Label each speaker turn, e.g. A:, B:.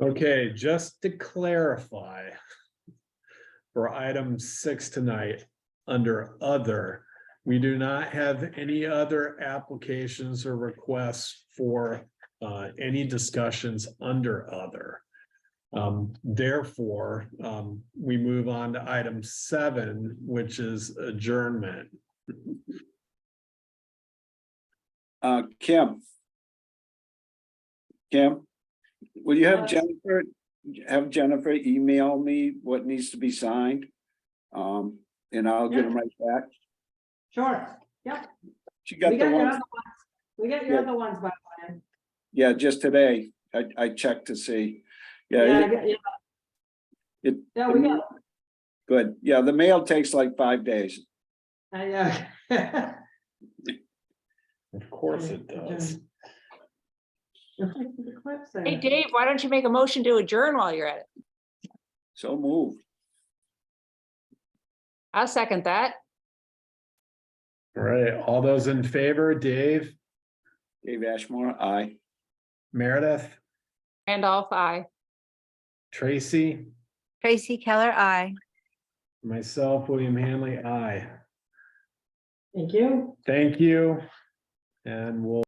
A: Okay, just to clarify. For item six tonight, under other, we do not have any other applications or requests for uh, any discussions under other. Um, therefore, um, we move on to item seven, which is adjournment.
B: Uh, Kim. Kim, will you have
C: Yes.
B: Jennifer, have Jennifer email me what needs to be signed? Um, and I'll get them right back.
C: Sure,
B: She
C: we
B: got
C: got
B: the
C: your other
B: one,
C: ones, we got your
B: Yeah.
C: other ones by plan.
B: yeah, just today. I, I checked to see.
C: Yeah, I
B: Yeah,
C: got- yeah.
B: It-
C: Yeah, we got,
B: good. Yeah, the mail takes like five days.
C: I, uh.
A: Of course it does.
C: The clips there.
D: Hey, Dave, why don't you make a motion to adjourn while you're at it?
B: So move.
D: I'll second that.
A: All right, all those in favor, Dave,
B: Dave Ashmore, aye.
A: Meredith,
D: Randolph, I.
A: Tracy,
E: Tracy Keller, I.
A: myself, William Hanley, I.
C: Thank you.
A: Thank you. And we'll.